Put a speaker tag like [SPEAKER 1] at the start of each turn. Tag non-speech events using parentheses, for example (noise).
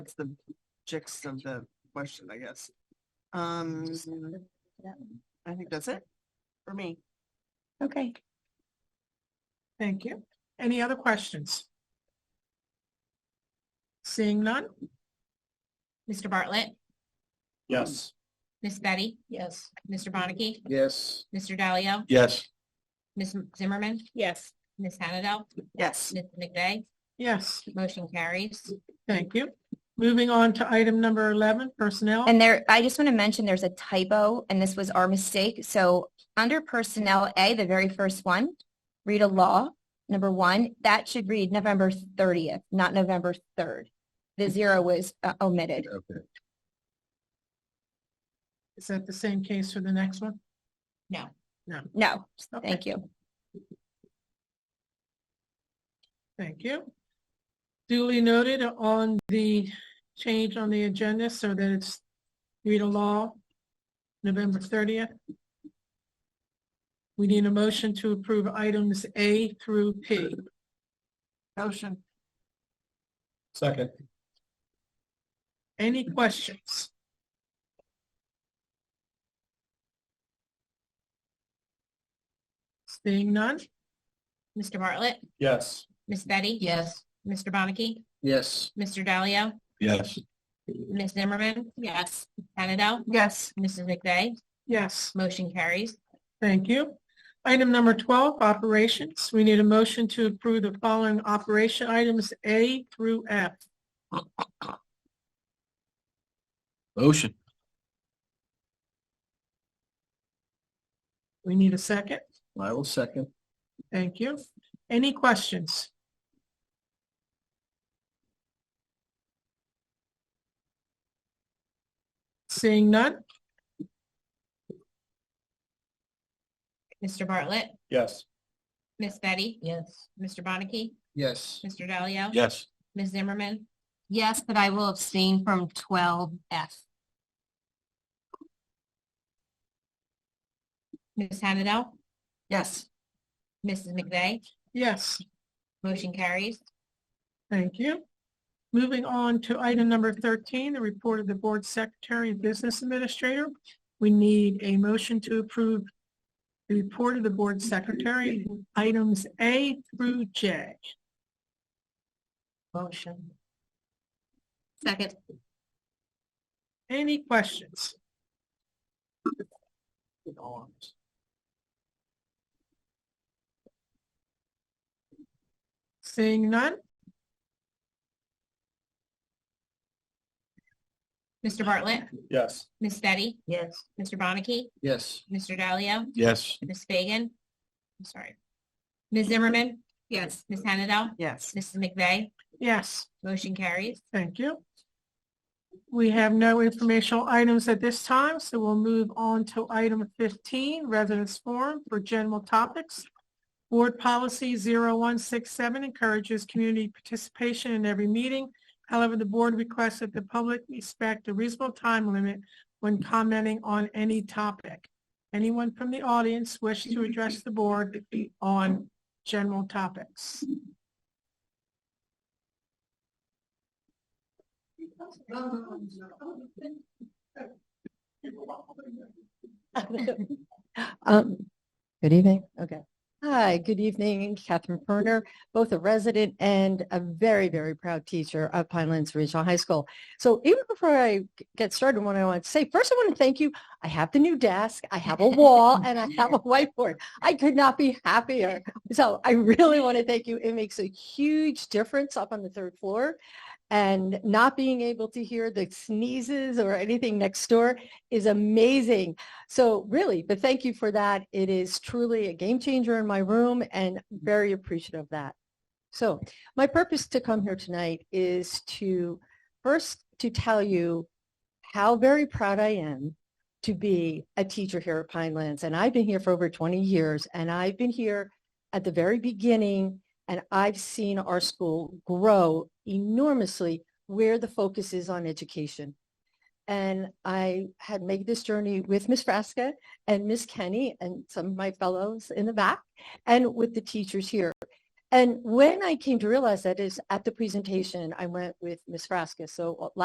[SPEAKER 1] That's the gist of the question, I guess. Um, I think that's it for me.
[SPEAKER 2] Okay.
[SPEAKER 3] Thank you. Any other questions? Seeing none?
[SPEAKER 4] Mr. Bartlett,
[SPEAKER 5] Yes.
[SPEAKER 4] Miss Betty,
[SPEAKER 2] Yes.
[SPEAKER 4] Mr. Bonnicky,
[SPEAKER 5] Yes.
[SPEAKER 4] Mr. Dalio,
[SPEAKER 5] Yes.
[SPEAKER 4] Miss Zimmerman,
[SPEAKER 2] Yes.
[SPEAKER 4] Miss Hennadel,
[SPEAKER 1] Yes.
[SPEAKER 4] Miss McVeigh,
[SPEAKER 3] Yes,
[SPEAKER 4] motion carries.
[SPEAKER 3] thank you. Moving on to item number 11, personnel.
[SPEAKER 6] And there, I just want to mention there's a typo and this was our mistake. So under personnel A, the very first one, read a law, number one, that should read November 30th, not November 3rd. The zero was uh, omitted.
[SPEAKER 5] Okay.
[SPEAKER 3] Is that the same case for the next one?
[SPEAKER 4] No.
[SPEAKER 6] No,
[SPEAKER 3] Okay,
[SPEAKER 6] thank you.
[SPEAKER 3] Thank you. Duly noted on the change on the agenda so that it's read a law, November 30th. We need a motion to approve items A through P.
[SPEAKER 1] Motion.
[SPEAKER 5] Second.
[SPEAKER 3] Any questions? Seeing none?
[SPEAKER 4] Mr. Bartlett,
[SPEAKER 5] Yes.
[SPEAKER 4] Miss Betty. Yes. Mr. Bonnicky,
[SPEAKER 5] Yes.
[SPEAKER 4] Mr. Dalio,
[SPEAKER 5] Yes.
[SPEAKER 4] Miss Zimmerman. Yes. Hennadel,
[SPEAKER 1] Yes.
[SPEAKER 4] Mrs. McVeigh,
[SPEAKER 3] Yes,
[SPEAKER 4] motion carries.
[SPEAKER 3] thank you. Item number 12, operations. We need a motion to approve the following operation items A through F.
[SPEAKER 5] Motion.
[SPEAKER 3] We need a second.
[SPEAKER 5] I will second.
[SPEAKER 3] Thank you. Any questions? Seeing none?
[SPEAKER 4] Mr. Bartlett,
[SPEAKER 5] Yes.
[SPEAKER 4] Miss Betty.
[SPEAKER 2] Yes.
[SPEAKER 4] Mr. Bonnicky,
[SPEAKER 5] Yes.
[SPEAKER 4] Mr. Dalio.
[SPEAKER 5] Yes.
[SPEAKER 4] Ms. Zimmerman,
[SPEAKER 2] Yes, but I will abstain from twelve F.
[SPEAKER 4] Miss Hennadel,
[SPEAKER 1] Yes.
[SPEAKER 4] Mrs. McVeigh,
[SPEAKER 3] Yes.
[SPEAKER 4] motion carries.
[SPEAKER 3] Thank you. Moving on to item number 13, the report of the Board Secretary and Business Administrator. We need a motion to approve the report of the Board Secretary, items A through J.
[SPEAKER 2] Motion.
[SPEAKER 4] Second.
[SPEAKER 3] Any questions? Seeing none?
[SPEAKER 4] Mr. Bartlett,
[SPEAKER 5] Yes.
[SPEAKER 4] Miss Betty,
[SPEAKER 2] Yes.
[SPEAKER 4] Mr. Bonnicky,
[SPEAKER 5] Yes.
[SPEAKER 4] Mr. Dalio,
[SPEAKER 5] Yes.
[SPEAKER 4] Ms. Fagan, I'm sorry. Ms. Zimmerman?
[SPEAKER 2] Yes.
[SPEAKER 4] Ms. Hennadel?
[SPEAKER 1] Yes.
[SPEAKER 4] Mrs. McVeigh?
[SPEAKER 3] Yes.
[SPEAKER 4] Motion carries.
[SPEAKER 3] Thank you. We have no informational items at this time, so we'll move on to item 15, Residents Forum for General Topics. Board Policy 0167 encourages community participation in every meeting. However, the board requests that the public respect a reasonable time limit when commenting on any topic. Anyone from the audience wish to address the board on general topics?
[SPEAKER 7] (laughs) Um, good evening. Okay. Hi, good evening. Catherine Perner, both a resident and a very, very proud teacher of Pinelands Regional High School. So even before I g- get started, what I want to say, first I want to thank you. I have the new desk, I have a wall, and I have a (laughs) whiteboard. I could not be happier. So I really want to thank you. It makes a huge difference up on the third floor. And not being able to hear the sneezes or anything next door is amazing. So really, but thank you for that. It is truly a game changer in my room and very appreciative of that. So my purpose to come here tonight is to first to tell you how very proud I am to be a teacher here at Pinelands. And I've been here for over 20 years and I've been here at the very beginning and I've seen our school grow enormously where the focus is on education and I had made this journey with Miss Frasca and Miss Kenny and some of my fellows in the back and with the teachers here. And when I came to realize that is at the presentation, I went with Ms. Frasca. So a lot